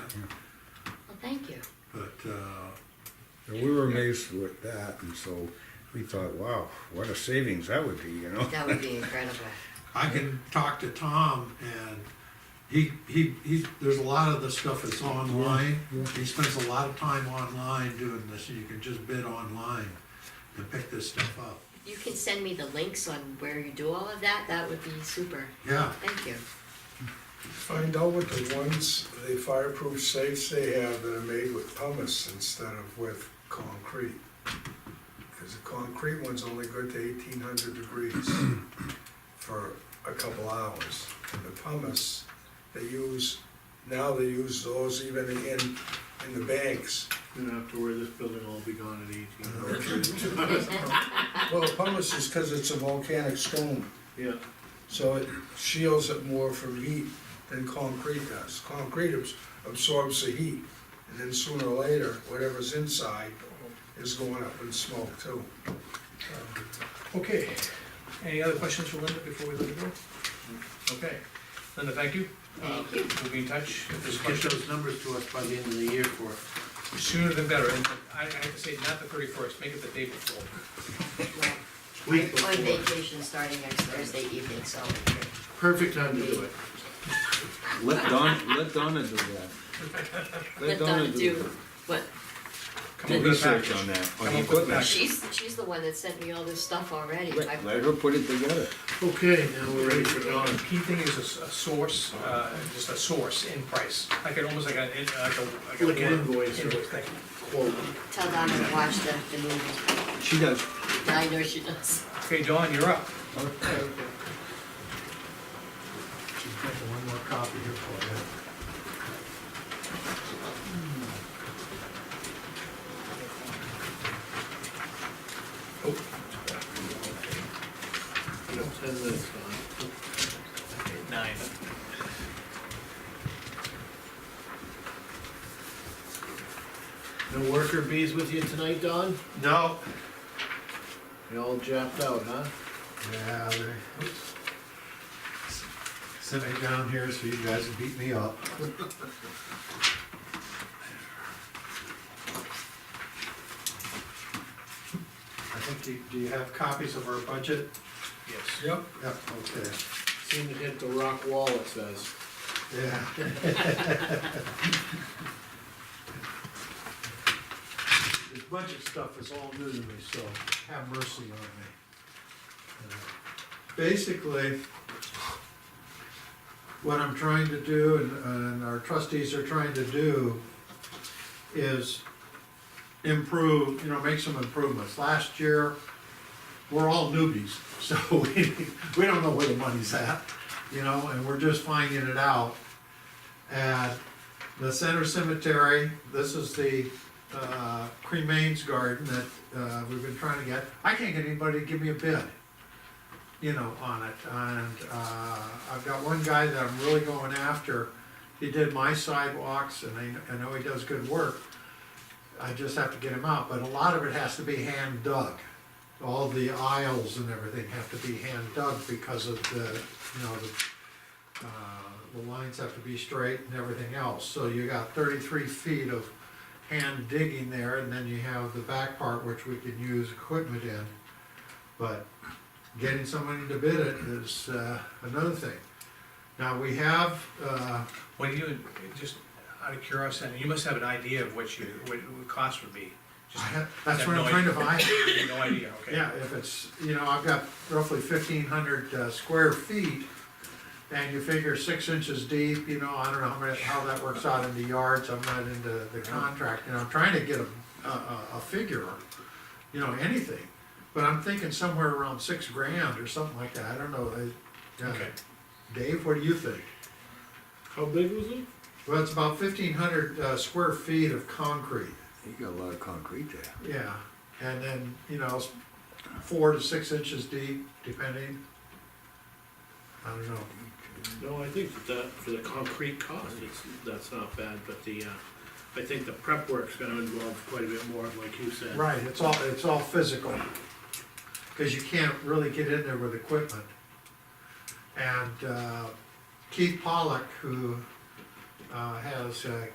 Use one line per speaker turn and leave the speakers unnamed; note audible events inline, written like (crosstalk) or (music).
Thank you.
But, uh, and we were amazed with that, and so we thought, wow, what a savings that would be, you know?
That would be incredible.
I can talk to Tom and he, he, he, there's a lot of the stuff that's online. He spends a lot of time online doing this, and you can just bid online and pick this stuff up.
You can send me the links on where you do all of that. That would be super.
Yeah,
Thank you.
Find out what the ones, the fireproof safes they have that are made with pumice instead of with concrete. Cause the concrete one's only good to eighteen hundred degrees for a couple hours. And the pumice, they use, now they use those even in, in the banks.
You don't have to worry, this building will all be gone at eighteen hours.
Well, pumice is cause it's a volcanic stone.
Yeah,
So it shields it more from heat than concrete does. Concrete abs- absorbs the heat, and then sooner or later, whatever's inside is going up in smoke too.
Okay, any other questions for Linda before we let her go? Okay, Linda, thank you. Uh,
Thank you.
We'll be in touch if there's
just get
questions,
those numbers to us by the end of the year for it.
sooner than better, and I, I have to say, not the thirty-first, make it the day before.
Well,
Week
I'm on
before.
vacation starting next Thursday evening, so
perfect time to do it.
Let Don, let Donna do that.
let Donna do what,
Come
Do
up with a
research
package.
on that, on
Come up
the
with
equipment.
package.
she's, she's the one that sent me all this stuff already. I-
Let let her put it together.
Okay, now we're ready for Dawn.
The Key thing is a, s- a source, uh, just a source in price, like an, almost like an, in- like a,
Like
like a.
an
word-
invoice or-
Invoice, thank you.
Quote.
Tell Donna to watch the, the movie.
She does.
I know she does.
Okay, Dawn, you're up.
She's got the one more copy here for you.
You don't send this, Dawn.
Nine.
No worker bees with you tonight, Don?
No,
They all japped out, huh?
yeah, they, oops. Sent me down here so you guys would beat me up. I think, you- do you have copies of our budget?
Yes.
Yep.
Yep, okay,
Seemed to hit the rock wall, it says.
yeah. This budget stuff is all new to me, so have mercy on me. Uh, Basically, what I'm trying to do, and, and our trustees are trying to do, is improve, you know, make some improvements. Last year, we're all newbies, (laughs) so we, we don't know where the money's at, you know, and we're just finding it out. At the center cemetery, this is the, uh, cremains garden that, uh, we've been trying to get. I can't get anybody to give me a bid, you know, on it, and, uh, I've got one guy that I'm really going after. He did my sidewalks, and I, I know he does good work. I just have to get him out, but a lot of it has to be hand dug all the aisles and everything have to be hand dug because of the, you know, the, uh, the lines have to be straight and everything else. So you got thirty-three feet of hand digging there, and then you have the back part which we can use equipment in. But getting somebody to bid it is, uh, another thing. Now, we have, uh,
What do you, just out of curiosity, you must have an idea of what you, what the cost would be. Just-
that's what I'm trying to find.
You have No idea, okay.
Yeah, if it's, you know, I've got roughly fifteen hundred, uh, square feet, and you figure six inches deep, you know, I don't know how many, how that works out into yards, I'm not into the contract, and I'm trying to get a, a, a, a figure, you know, anything, but I'm thinking somewhere around six grand or something like that, I don't know, I, uh,
Okay.
Dave, what do you think?
How big was it?
Well, it's about fifteen hundred, uh, square feet of concrete.
You got a lot of concrete there.
Yeah, and then, you know, s- four to six inches deep, depending. I don't know,
No, I think that that, for the concrete cost, it's, that's not bad, but the, uh, I think the prep work's gonna involve quite a bit more, like you said.
right, it's all, it's all physical. Cause you can't really get in there with equipment. And, uh, Keith Pollock, who, uh, has, uh,